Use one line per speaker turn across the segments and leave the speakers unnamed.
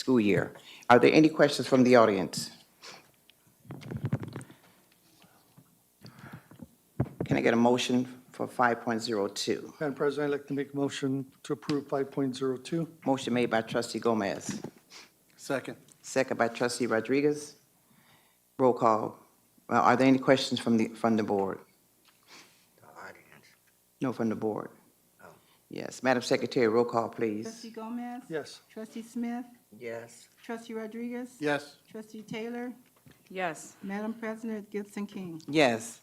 school year. Are there any questions from the audience? Can I get a motion for 5.02?
Madam President, I'd like to make a motion to approve 5.02.
Motion made by trustee Gomez,
Second.
second by trustee Rodriguez. Roll call. Uh, Are there any questions from the, from the board?
audience. Oh.
No, from the board. Yes, Madam Secretary, roll call, please.
Trustee Gomez?
Yes.
Trustee Smith?
Yes,
Trustee Rodriguez?
Yes.
Trustee Taylor?
Yes,
Madam President, Gibson King.
Yes.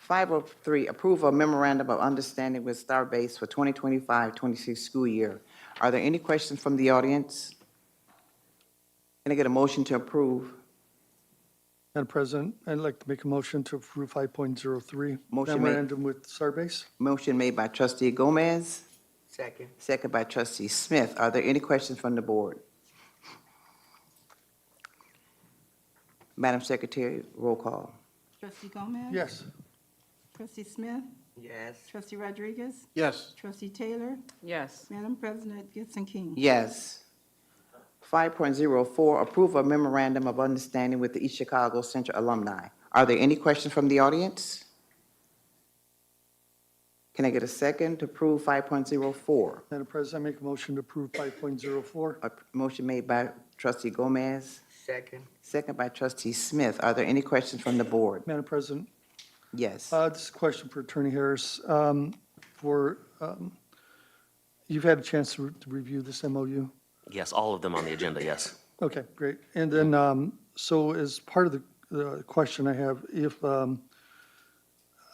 503, approve a memorandum of understanding with Starbase for 2025-26 school year. Are there any questions from the audience? Can I get a motion to approve?
Madam President, I'd like to make a motion to approve 5.03.
Motion made.
Memorandum with Starbase.
Motion made by trustee Gomez,
second,
second by trustee Smith. Are there any questions from the board? Madam Secretary, roll call.
Trustee Gomez?
Yes.
Trustee Smith?
yes,
Trustee Rodriguez?
Yes.
Trustee Taylor?
yes,
Madam President, Gibson King.
Yes. 5.04, approve a memorandum of understanding with the East Chicago Central Alumni. Are there any questions from the audience? Can I get a second to approve 5.04?
Madam President, I make a motion to approve 5.04.
A motion made by trustee Gomez,
second,
second by trustee Smith. Are there any questions from the board?
Madam President,
Yes.
uh, this is a question for Attorney Harris. Um, For, um, you've had a chance to re- to review this MOU?
Yes, all of them on the agenda, yes.
Okay, great. And then, um, so as part of the, the question I have, if, um,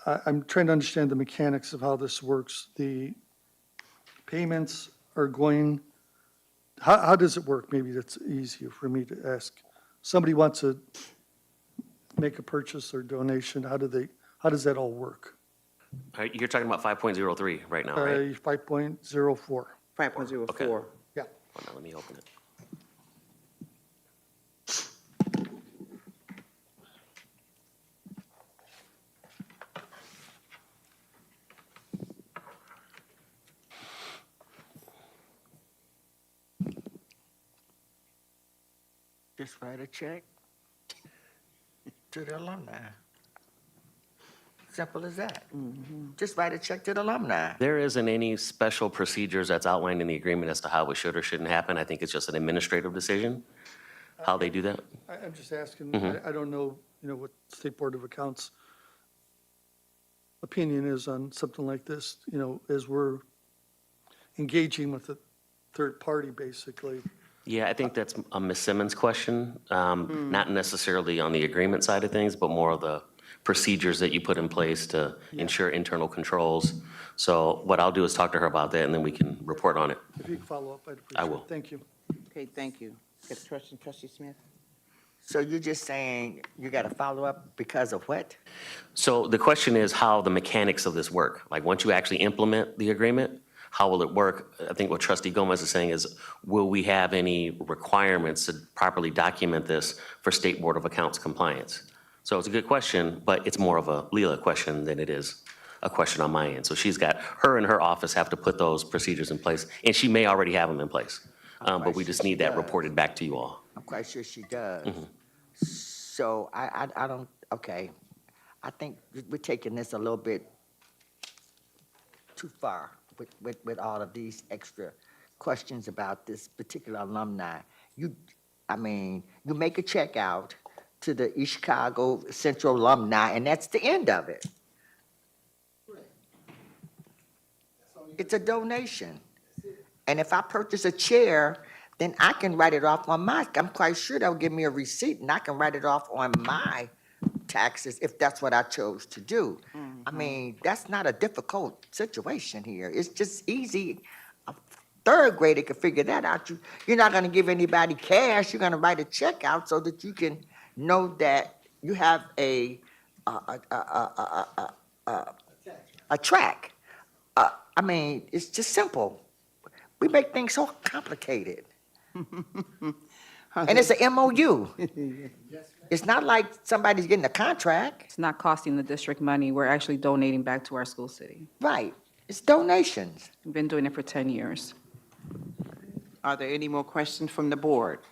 I, I'm trying to understand the mechanics of how this works. The payments are going, how, how does it work? Maybe that's easier for me to ask. Somebody wants to make a purchase or donation, how do they, how does that all work?
All right, You're talking about 5.03 right now, right?
Uh, five point zero four,
5.04.
yeah.
Hold on, let me open it.
just write a check to the alumni. Simple as that. Just write a check to the alumni.
There isn't any special procedures that's outlined in the agreement as to how it should or shouldn't happen. I think it's just an administrative decision, how they do that.
I, I'm just asking,
Mm-hmm.
I, I don't know, you know, what State Board of Accounts opinion is on something like this, you know, as we're engaging with a third party, basically.
Yeah, I think that's a Ms. Simmons question, um, not necessarily on the agreement side of things, but more of the procedures that you put in place to ensure internal controls. So what I'll do is talk to her about that, and then we can report on it.
If you could follow up, I'd appreciate it.
I will.
Thank you.
Okay, thank you. Get a question, trustee Smith?
So you're just saying you got to follow up because of what?
So the question is how the mechanics of this work. Like, once you actually implement the agreement, how will it work? I think what trustee Gomez is saying is, will we have any requirements to properly document this for State Board of Accounts compliance? So it's a good question, but it's more of a Leela question than it is a question on my end. So she's got, her and her office have to put those procedures in place, and she may already have them in place. Um, But we just need that reported back to you all.
I'm quite sure she does. So I, I, I don't, okay. I think we're taking this a little bit too far with, with, with all of these extra questions about this particular alumni. You, I mean, you make a check out to the East Chicago Central alumni, and that's the end of it. It's a donation. And if I purchase a chair, then I can write it off on my, I'm quite sure they'll give me a receipt and I can write it off on my taxes if that's what I chose to do. I mean, that's not a difficult situation here. It's just easy. A third grader can figure that out. You, you're not gonna give anybody cash, you're gonna write a check out so that you can know that you have a, a, a, a, a, a, a- a track. Uh, I mean, it's just simple. We make things so complicated. And it's an MOU. It's not like somebody's getting a contract.
it's not costing the district money. We're actually donating back to our school city.
Right. It's donations.
We've been doing it for 10 years.
Are there any more questions from the board?